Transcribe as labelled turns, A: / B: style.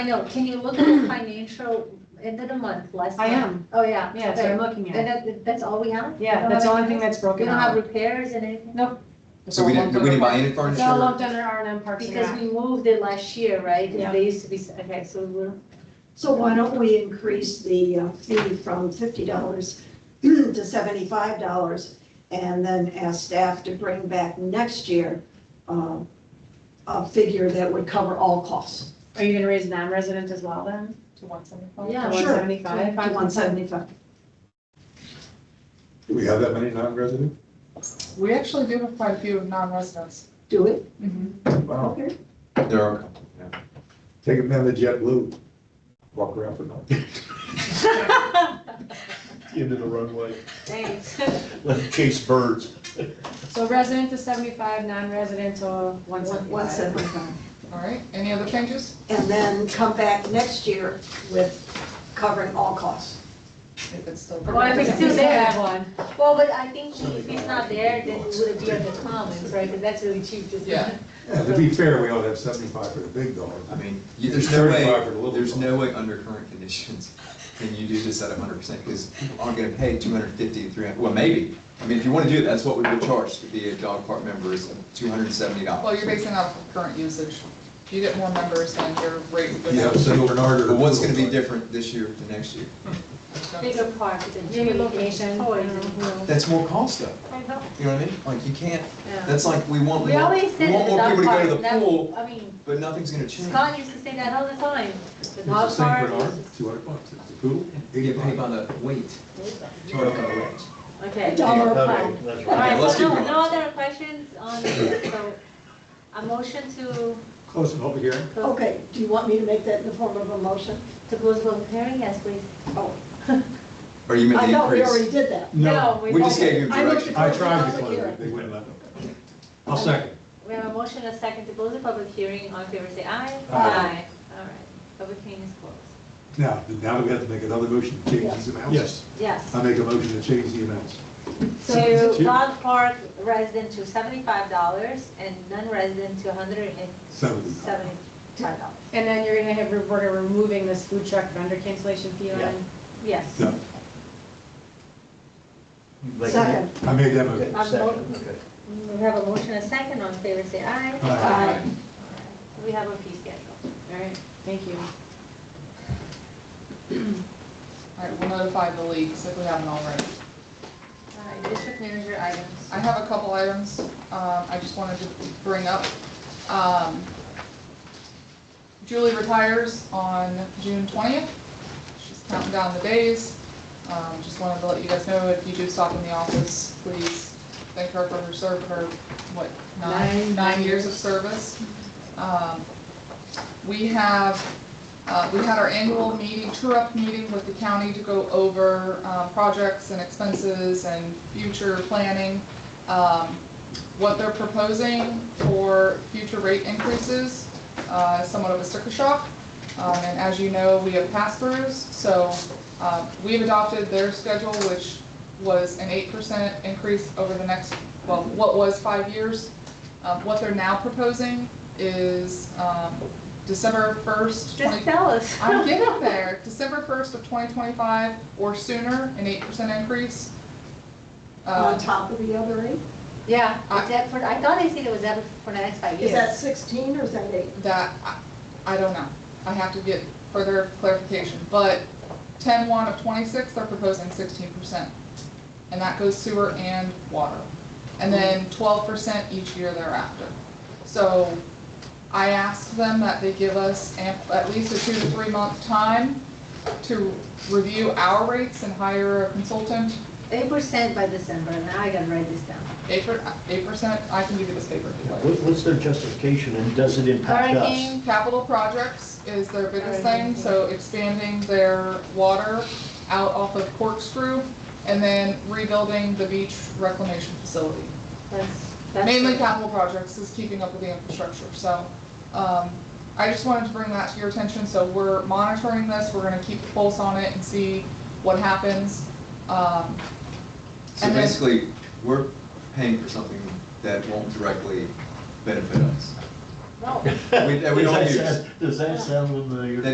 A: I know, can you look at the financial end of the month, last
B: I
A: month?
B: am,
A: Oh, yeah.
B: yeah, so I'm
A: okay.
B: looking
A: And
B: at it.
A: that, that's all we have?
B: Yeah, that's the only thing that's
A: We
B: broken
A: don't have
B: out.
A: repairs and anything?
B: Nope.
C: it. So we didn't, we didn't buy any
B: It's all
C: furniture?
B: lumped under R and M Parks and
A: Because
B: Rec.
A: we moved it last year, right?
B: Yeah.
A: And they used to be, s- okay, so we're,
D: So why don't we increase the uh, fee from fifty dollars to seventy-five dollars? And then ask staff to bring back next year um, a figure that would cover all costs.
B: Are you gonna raise non-resident as well then?
E: To one seventy-five?
A: Yeah,
B: One
D: sure.
B: seventy-five?
D: One seventy-five.
F: Do we have that many non-resident?
E: We actually do have quite a few non-residents.
D: Do it.
F: Wow,
D: Okay.
C: There are a couple, yeah.
F: take them down to JetBlue, walk around for nothing. Into the runway,
A: thanks.
F: let chase birds.
B: So resident to seventy-five, non-resident to one
D: One
B: seventy-five.
D: seventy-five.
E: All right, any other changes?
D: And then come back next year with covering all costs.
E: If it's still.
A: Well, I think it's still
B: We
A: there.
B: have one.
A: Well, but I think if it's not there, then it would be on the commons, right? Because that's really cheap, just.
E: Yeah.
F: Yeah, to be fair, we all have seventy-five for the big dog.
C: I mean, you- there's no
F: 35 for
C: way,
F: the little
C: there's
F: dog.
C: no way under current conditions can you do this at hundred percent, because people aren't gonna pay 250, 300. well, maybe. I mean, if you wanna do it, that's what we would charge to be a dog park member is two hundred and seventy dollars.
E: Well, you're basing off of current usage. If you get more members, then your rate would.
F: Yeah, so Bernard or.
C: But what's gonna be different this year to next year?
A: Bigger park, than
B: Maybe location, I
A: toys
B: don't
A: and-
B: know.
C: That's more cost though,
A: I know,
C: you know what I mean? Like, you can't,
A: yeah.
C: that's like, we want
A: We
C: more,
A: always
C: we
A: said that
C: want
A: the dog
C: more people to
A: park,
C: go to the pool,
A: that, I mean,
C: but nothing's gonna change.
A: Scott used to say that all the time. The
F: It's the
A: dog
F: same
A: park.
F: for
A: is
F: ours, two hundred bucks, it's a pool,
C: You get paid
F: eighty-five.
C: by the weight,
A: just-
C: two hundred by the weight.
A: Okay.
D: Dollar a pound.
A: All right,
C: let's
A: so
C: keep
A: no,
C: going.
A: no other questions on, so, a motion to,
F: Close the public hearing.
A: to
D: Okay, do you want me to make that in the form of a motion?
A: close public hearing, yes, please.
D: Oh,
C: Or you make
D: I
C: the
D: thought we
C: increase.
D: already did that.
C: We just
A: okay.
C: gave you
D: I looked
C: direction.
F: I tried to close it, they wouldn't let me. I'll second.
A: We have a motion, and a second to close the public hearing, all in favor say aye.
F: Aye.
A: All right, public hearing is closed.
F: Now, now we have to make another motion to change these amounts? Yes.
A: Yes,
C: Um,
F: I make a motion to change the amounts.
A: to
F: Two.
A: dog park resident to seventy-five dollars and non-resident to hundred and
F: Seventy.
A: seventy-five dollars.
B: And then you're gonna have, we're removing this food truck vendor cancellation fee
G: Yeah.
B: line.
A: Yes.
F: No,
G: Like,
D: Second.
F: I made that motion.
G: Okay, second, okay.
A: We have a motion, and a second, all in favor say aye. uh,
F: Aye.
A: We have a fee schedule.
B: All right, thank you.
E: All right, we'll notify the leagues if we haven't already.
A: All right, district manager items.
E: I have a couple items um, I just wanted to bring up. Um, Julie retires on June 20th. She's counting down the days. Um, Just wanted to let you guys know, if you do stop in the office, please thank her for her serve, her, what,
B: Nine-
E: nine,
B: nine
E: nine years of service. Um, We have, uh, we had our annual meeting, tour-up meeting with the county to go over uh, projects and expenses and future planning um, what they're proposing for future rate increases, uh, somewhat of a sticker shock. Um, And as you know, we have pass-throughs, so uh, we've adopted their schedule, which was an 8% increase over the next, well, what was five years. Um, What they're now proposing is um, December 1st, 20
A: Just tell us.
E: I'm getting there. December 1st of 2025 or sooner, an 8% increase.
D: On
E: Uh,
D: top of the other eight?
A: Yeah,
E: I-
A: is that for, I thought I said it was that for the next five
D: Is
A: years.
D: that sixteen or is that eight?
E: That, I- I don't know. I have to get further clarification, but 10-1 of 26, they're proposing 16%. And that goes sewer and water. And then 12% each year thereafter. So I asked them that they give us amp- at least a two to three month time to review our rates and hire a consultant
A: Eight percent by December, now I gotta write this down.
E: Eight per, eight percent, I can give you this paper if you like.
G: What- What's their justification and does it impact us?
E: Hurricane capital projects is their biggest thing, so expanding their water out off of Corkscrew and then rebuilding the beach reclamation facility.
A: That's, that's.
E: Mainly capital projects is keeping up with the infrastructure, so, um, I just wanted to bring that to your attention, so we're monitoring this, we're gonna keep a pulse on it and see what happens. Um,
C: So
E: And then-
C: basically, we're paying for something that won't directly benefit us.
A: No.
C: We- that we don't
G: Does that
C: use.
G: sound- Does that sound familiar?